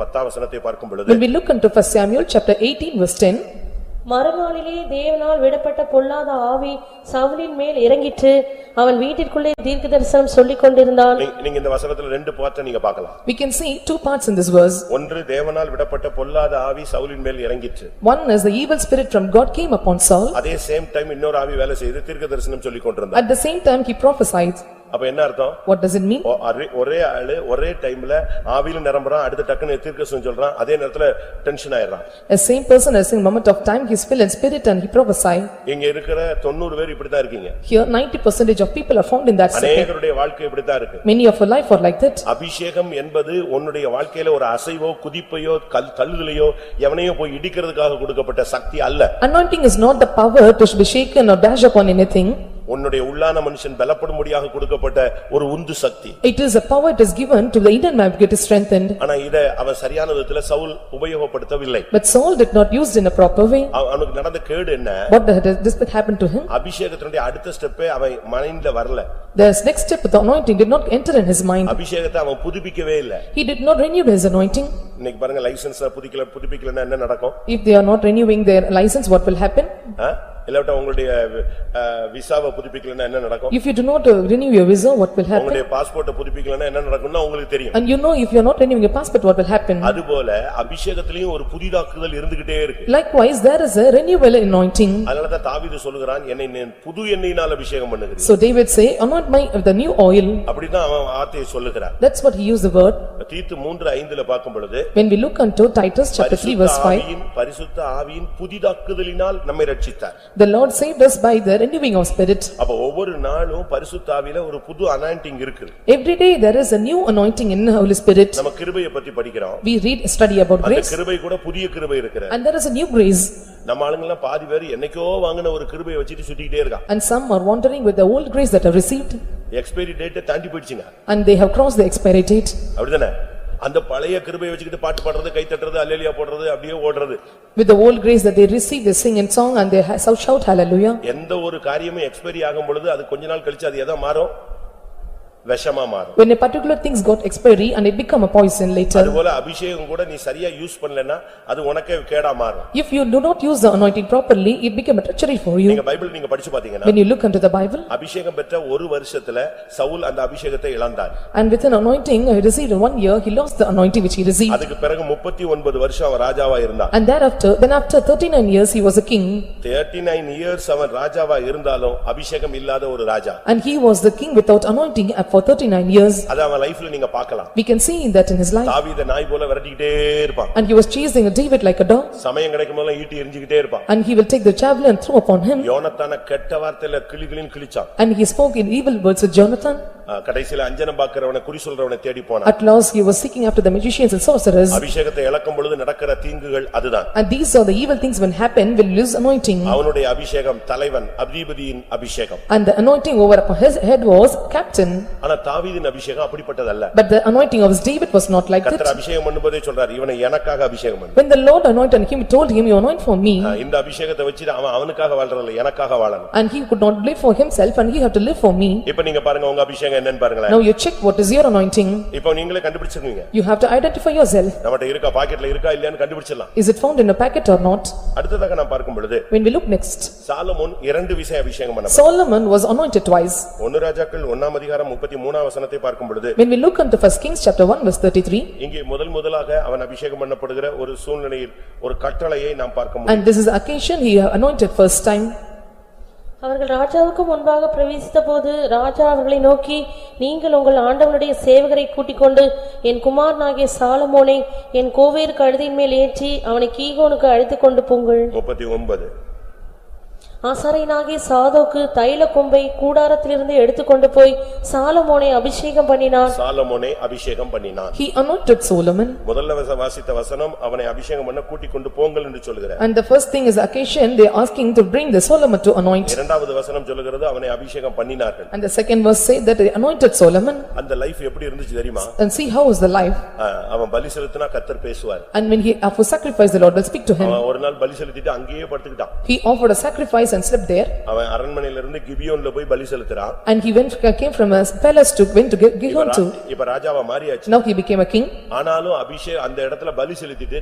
பத்தாம் வசனத்தை பார்க்கும் பொழுது When we look into first Samuel chapter eighteen verse ten, மறுநாளிலே தேவனால் விடப்பட்ட பொல்லாத ஆவி சவுலின் மேல் இறங்கிற்று அவன் வீட்டிற்குள்ளே தீர்க்கதரிசனம் சொல்லிக் கொண்டிருந்தான் நீ- நீங்க இந்த வசனத்துல ரெண்டு பார்ட்ட நீங்க பார்க்கலாம் we can see two parts in this verse. ஒன்று தேவனால் விடப்பட்ட பொல்லாத ஆவி சவுலின் மேல் இறங்கிற்று One is the evil spirit from God came upon Saul, அதே சேம் டைம் இன்னொரு ஆவி வேலை செய்து தீர்க்க தரிசனம் சொல்லிக் கொண்டிருந்தான் at the same time he prophesied. அப்ப என்ன அர்த்தம் What does it mean? ஒ- அரே- ஒரே ஆளு ஒரே டைம்ல ஆவியில நிரம்புறான் அடுத்த டக்குன்னு தீர்க்கதரிசனம் சொல்றான் அதே நேரத்துல டென்ஷன் ஆயிடுறான் A same person as in moment of time he is filled in spirit and he prophesied. இங்க இருக்கிற தொண்ணூறு பேர் இப்படித்தான் இருக்கீங்க Here ninety percentage of people are found in that state. அநேகருடைய வாழ்க்கை இப்படித்தான் இருக்கு Many of our life are like that. அபிஷேகம் என்பது உன்னுடைய வாழ்க்கையில ஒரு அசைவோ குதிப்பையோ கல் தள்ளுதலையோ எவனையோ போய் இடிக்கிறதுக்காக கொடுக்கப்பட்ட சக்தி அல்ல Anointing is not the power to be shaken or dash upon anything. உன்னுடைய உள்ளான மனுஷன் பலப்படும்படியாக கொடுக்கப்பட்ட ஒரு உந்து சக்தி It is a power that is given to the inner man to get strengthened. ஆனா இத அவன் சரியான விதத்துல Saul உபயோகப்படுத்தவில்லை But Saul did not use it in a proper way. அவ- அவனுக்கு நடந்த கேடு என்ன What the- this that happened to him? அபிஷேகத்தினுடைய அடுத்த ஸ்டெப்பே அவன் மைண்ட்ல வரல The next step of the anointing did not enter in his mind. அபிஷேகத்தை அவன் புதுப்பிக்கவே இல்ல He did not renew his anointing. இன்னைக்கு பாருங்க லைசன்ஸ் புதுப்பிக்கல புதுப்பிக்கலன்னா என்ன நடக்கும் If they are not renewing their license, what will happen? ஆ? இல்லாவிட்டா உங்களுடைய அஹ், விசாவை புதுப்பிக்கலன்னா என்ன நடக்கும் If you do not uh, renew your visa, what will happen? உங்களுடைய பாஸ்போர்ட்டை புதுப்பிக்கலன்னா என்ன நடக்கும்னா உங்களுக்கு தெரியும் And you know if you are not renewing your passport, what will happen? அதுபோல அபிஷேகத்திலையும் ஒரு புதிதாக்குதல் இருந்துகிட்டே இருக்கு Likewise, there is a renewal anointing. அதனாலதான் தாவீது சொல்லுகிறான் என்னை நீ புது எண்ணெயினால் அபிஷேகம் பண்ணுகிறேன் So David say, anoint my, with the new oil. அப்படிதான் அவன் வார்த்தையை சொல்லுகிறான் That's what he used the word. தீத்து மூன்று ஐந்துல பார்க்கும் பொழுது When we look unto Titus chapter three பரிசுத்த verse five, ஆவியின் பரிசுத்த ஆவியின் புதிதாக்குதலினால் நம்மை ரட்சித்தார் the Lord saved us by the renewing of spirit. அப்ப ஒவ்வொரு நாளும் பரிசுத்த ஆவியில ஒரு புது அனாயிண்டிங் இருக்கு Every day there is a new anointing in the Holy Spirit. நம்ம கிருபையை பத்தி படிக்கிறோம் We read, study about அந்த grace கிருபை கூட புதிய கிருபை இருக்கிற and there is a new grace. நம்ம ஆளுங்கெல்லாம் பாதி பேர் என்னைக்கோ வாங்கின ஒரு கிருபையை வச்சுட்டு சுத்திக்கிட்டே இருக்கான் And some are wandering with the old grace that are received expiry டேட்டை தாண்டி போயிடுச்சுங்க and they have crossed the expiry date. அப்படிதானே அந்த பழைய கிருபையை வச்சுக்கிட்டு பாட்டு பாடுறது கை தட்டுறது அல்லேலியா போடுறது அப்படியே ஓடுறது With the old grace that they receive, they sing and song and they ha- shout hallelujah. எந்த ஒரு காரியமும் எக்ஸ்பைரி ஆகும் பொழுது அது கொஞ்ச நாள் கழிச்சு அது எதா மாறும் விஷமா மாறும் When a particular things got expiry and it become a poison later. அதுபோல அபிஷேகம் கூட நீ சரியா யூஸ் பண்ணலன்னா அது உனக்கே கேடா மாறும் If you do not use the anointing properly, it become a treachery for you. நீங்க பைபிள் நீங்க படிச்சு பாத்தீங்கன்னா When you look into the Bible அபிஷேகம் பெற்ற ஒரு வருஷத்துல சவுல் அந்த அபிஷேகத்தை இழந்தார் and with an anointing he received in one year, he lost the anointing which he received. அதுக்கு பிறகு முப்பத்தி ஒன்பது வருஷம் அவன் ராஜாவா இருந்தான் And thereafter, then after thirty-nine years, he was a king thirty nine years அவன் ராஜாவா இருந்தாலும் அபிஷேகம் இல்லாத ஒரு ராஜா and he was the king without anointing for thirty-nine years. அது அவன் லைஃப்ல நீங்க பார்க்கலாம் We can see that in his life தாவீத நாய் போல விரட்டிக்கிட்டே இருப்பான் and he was chasing David like a dog சமயம் கிடைக்கும் போதெல்லாம் ஈட்டி எரிஞ்சுக்கிட்டே இருப்பான் and he will take the javelin and throw upon him யோனத்தான கெட்ட வார்த்தையில கிளிகளின் கிழிச்சான் and he spoke in evil words with Jonathan. அஹ் கடைசியில அஞ்சனம் பாக்குறவனை குறி சொல்றவனை தேடி போனான் At last, he was seeking after the magicians and sorcerers. அபிஷேகத்தை இழக்கும் பொழுது நடக்கிற தீங்குகள் அதுதான் And these are the evil things when happen will lose anointing. அவனுடைய அபிஷேகம் தலைவன் அதிபதியின் அபிஷேகம் And the anointing over upon his head was captain. ஆனா தாவீதின் அபிஷேகம் அப்படிப்பட்டதல்ல But the anointing of David was not like கர்த்தர் that. அபிஷேகம் பண்ணும்போதே சொல்றாரு இவனை எனக்காக அபிஷேகம் பண்ணு When the Lord anointed him, he told him, "You anoint for me." அஹ் இந்த அபிஷேகத்தை வச்சு அவன் அவனுக்காக வாழ்றதில்ல எனக்காக வாழணும் And he could not live for himself and he had to live for me. இப்ப நீங்க பாருங்க உங்க அபிஷேகம் என்னன்னு பாருங்களேன் Now you check what is your anointing. இப்ப நீங்களே கண்டுபிடிச்சிருக்கீங்க You have to identify yourself. நம்மகிட்ட இருக்கா பாக்கெட்ல இருக்கா இல்லையான்னு கண்டுபிடிச்சிடலாம் Is it found in a packet or not? அடுத்ததாக நான் பார்க்கும் பொழுது When we look next, Solomon இரண்டு விஷயம் அபிஷேகம் பண்ண Solomon was anointed twice. ஒன்னு ராஜாக்கள் ஒன்னாம் அதிகாரம் முப்பத்தி மூணாம் வசனத்தை பார்க்கும் பொழுது When we look into first Kings chapter one verse thirty-three, இங்கே முதல் முதலாக அவன் அபிஷேகம் பண்ணப்படுகிற ஒரு சூழ்நிலையில் ஒரு கட்டளையை நாம் பார்க்க முடியும் and this is the occasion he anointed first time. அவர்கள் ராஜாவுக்கு முன்பாக பிரவேசித்தபோது ராஜா அவர்களை நோக்கி நீங்கள் உங்கள் ஆண்டவனுடைய சேவகரை கூட்டிக் கொண்டு என் குமாரனாகிய சாலமோனை என் கோவேருக்கு கழுதின் மேல் ஏற்றி அவனை கீகோனுக்கு அழைத்துக் கொண்டு போங்கள் முப்பத்தி ஒன்பது ஆசாரியனாகிய சாதோக்கு தைல கொம்பை கூடாரத்திலிருந்து எடுத்துக்கொண்டு போய் சாலமோனை அபிஷேகம் பண்ணினான் சாலமோனை அபிஷேகம் பண்ணினான் He anointed Solomon. முதல்ல வச- வாசித்த வசனம் அவனை அபிஷேகம் பண்ண கூட்டிக் கொண்டு போங்கள் என்று சொல்லுகிற And the first thing is the occasion, they are asking to bring the Solomon to anoint. இரண்டாவது வசனம் சொல்லுகிறது அவனை அபிஷேகம் பண்ணினார்கள் And the second verse say that they anointed Solomon அந்த லைஃப் எப்படி இருந்துச்சு தெரியுமா and see how is the life. ஆஹ், அவன் பலி செலுத்தினா கத்தர் பேசுவார் And when he offered sacrifice, the Lord will speak to him. அவன் ஒரு நாள் பலி செலுத்திட்டு அங்கேயே படுத்துக்கிட்டான் He offered a sacrifice sacrifice and slept there. அவன் அரண்மனையிலிருந்து கிபியோன்ல போய் பலி செலுத்துறான் And he went, came from a palace to, went to Gi- Gihon இப்ப to. ரா- இப்ப ராஜாவா மாறியாச்சு Now he became a king. ஆனாலும் அபிஷேக் அந்த இடத்துல பலி செலுத்திட்டு